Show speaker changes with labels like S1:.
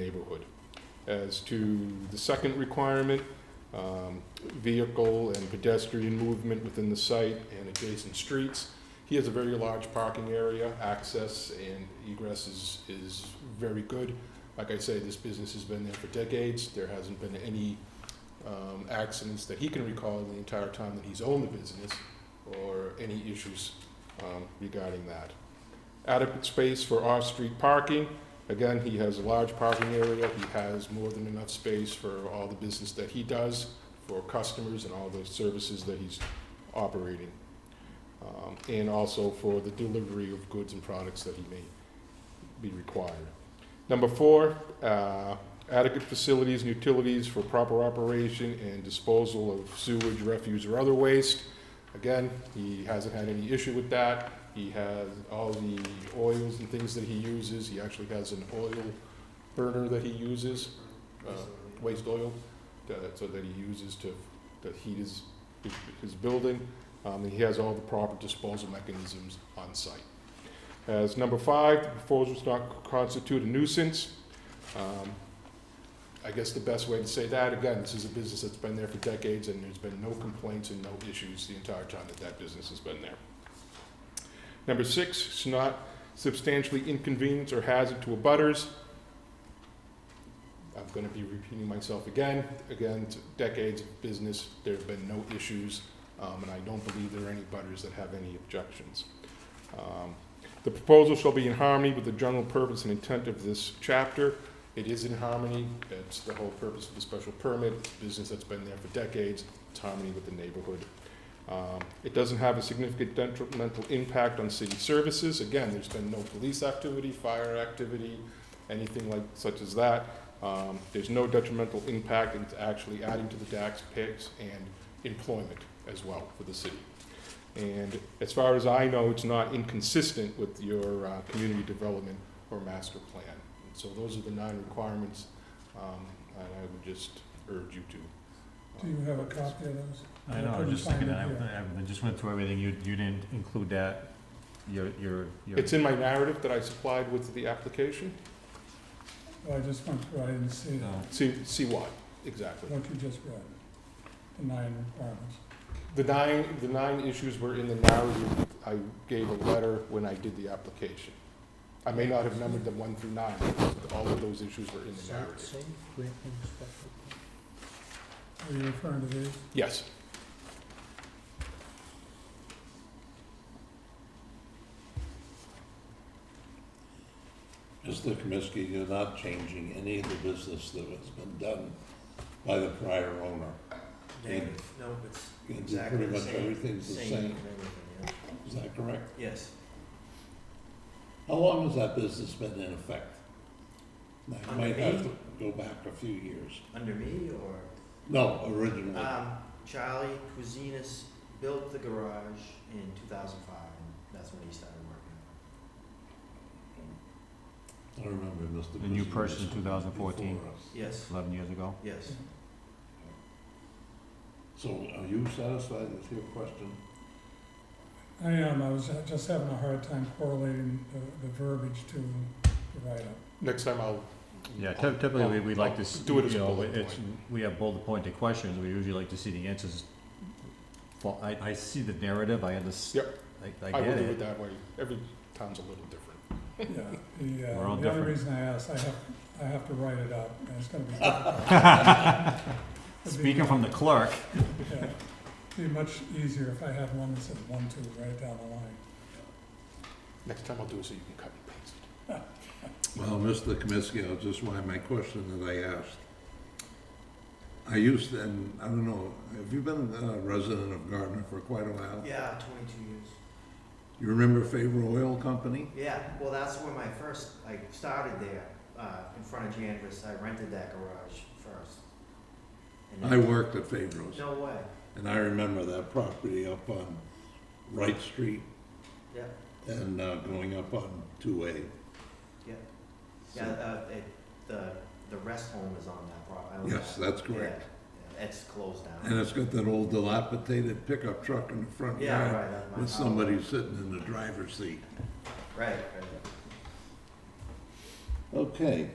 S1: neighborhood. As to the second requirement, um, vehicle and pedestrian movement within the site and adjacent streets. He has a very large parking area, access and egress is, is very good. Like I say, this business has been there for decades, there hasn't been any um, accidents that he can recall the entire time that he's owned the business, or any issues um, regarding that. Adequate space for off-street parking, Again, he has a large parking area, he has more than enough space for all the business that he does, for customers and all the services that he's operating. Um, And also for the delivery of goods and products that he may be required. Number four, uh, adequate facilities and utilities for proper operation and disposal of sewage, refuse, or other waste. Again, he hasn't had any issue with that. He has all the oils and things that he uses. He actually has an oil burner that he uses, uh, waste oil, that- so that he uses to, to heat his, his building. Um, and he has all the proper disposal mechanisms on site. As number five, the proposal does not constitute a nuisance. Um, I guess the best way to say that, again, this is a business that's been there for decades and there's been no complaints and no issues the entire time that that business has been there. Number six, it's not substantially inconvenience or hazard to abutters. I'm gonna be repeating myself again, again, it's decades of business, there have been no issues, um, and I don't believe there are any butters that have any objections. Um, The proposal shall be in harmony with the general purpose and intent of this chapter. It is in harmony, that's the whole purpose of the special permit, it's a business that's been there for decades, it's harmony with the neighborhood. Um, It doesn't have a significant detrimental impact on city services. Again, there's been no police activity, fire activity, anything like, such as that. Um, There's no detrimental impact, and it's actually adding to the tax picks and employment as well for the city. And as far as I know, it's not inconsistent with your uh, community development or master plan. And So those are the nine requirements, um, and I would just urge you to. uh,
S2: Do you have a copy of those?
S3: I know, I was just looking at, it. I I just went through everything, you, you didn't include that, your, your, your.
S1: It's in my narrative that I supplied with the application.
S2: Well, Oh, I just went through, I didn't see
S3: No.
S1: See, see what, exactly.
S2: what you just read, the nine requirements.
S1: The nine, the nine issues were in the narrative. I gave a letter when I did the application. I may not have numbered them one through nine, but all of those issues were in the narrative.
S2: Are you referring to these?
S1: Yes,
S4: Mr. Kaminsky, you're not changing any of the business that has been done by the prior owner.
S5: Negative. No, it's
S4: And
S5: exactly
S4: pretty
S5: the
S4: much
S5: same.
S4: everything's the same,
S5: and everything,
S4: is that correct?
S5: yeah. Yes,
S4: How long has that business been in effect? Now, you
S5: Under
S4: might have
S5: me?
S4: to go back a few years.
S5: under me or,
S4: No, originally,
S5: um, Charlie Cuisinis built the garage in two thousand five, and that's when he started working.
S4: I remember Mr.
S3: The new
S4: Kaminsky
S3: person in
S4: was
S3: 2014.
S4: before us.
S5: Yes,
S3: Eleven years ago?
S5: yes,
S4: So are you satisfied with your question?
S2: I am, I was just having a hard time correlating the, the verbiage to the write-up.
S1: next time I'll.
S3: Yeah, typ- typically, we, we like to, s-
S1: Do it as
S3: you know,
S1: bullet
S3: it's, we have bullet pointed questions, we usually like to see the answers. Well, I, I see the narrative, I understand. I,
S1: I
S3: I
S1: will
S3: get
S1: do it
S3: it.
S1: that way. Every town's a little different.
S2: Yeah, the,
S3: We're all
S2: uh, the only
S3: different.
S2: reason I asked, I have, I have to write it up, and it's gonna be. difficult. It'd be-
S3: Speaking from the clerk,
S2: yeah, It'd be much easier if I had one that said one, two, right down the line.
S1: Next time I'll do it so you can cut and paste it.
S4: Well, Mr. Kaminsky, I'll just why my question that I asked. I used, to- and I don't know, have you been a resident of Gardner for quite a while?
S5: yeah, twenty-two years.
S4: You remember Favor Oil Company?
S5: Yeah, well, that's where my first, I started there, uh, in front of Jandris, I rented that garage first. And
S4: I
S5: then-
S4: worked at Favor's,
S5: No way,
S4: and I remember that property up on Wright Street
S5: yeah,
S4: and uh, going up on two A.
S5: yeah, yeah, uh, it, the, the rest home is on that property. I own
S4: Yes,
S5: that.
S4: that's correct.
S5: Yeah, It's closed down.
S4: And it's got that old dilapidated pickup truck in the front
S5: Yeah,
S4: yard
S5: right, that's my
S4: with
S5: house.
S4: somebody sitting in the driver's seat.
S5: Right, right.
S4: Okay,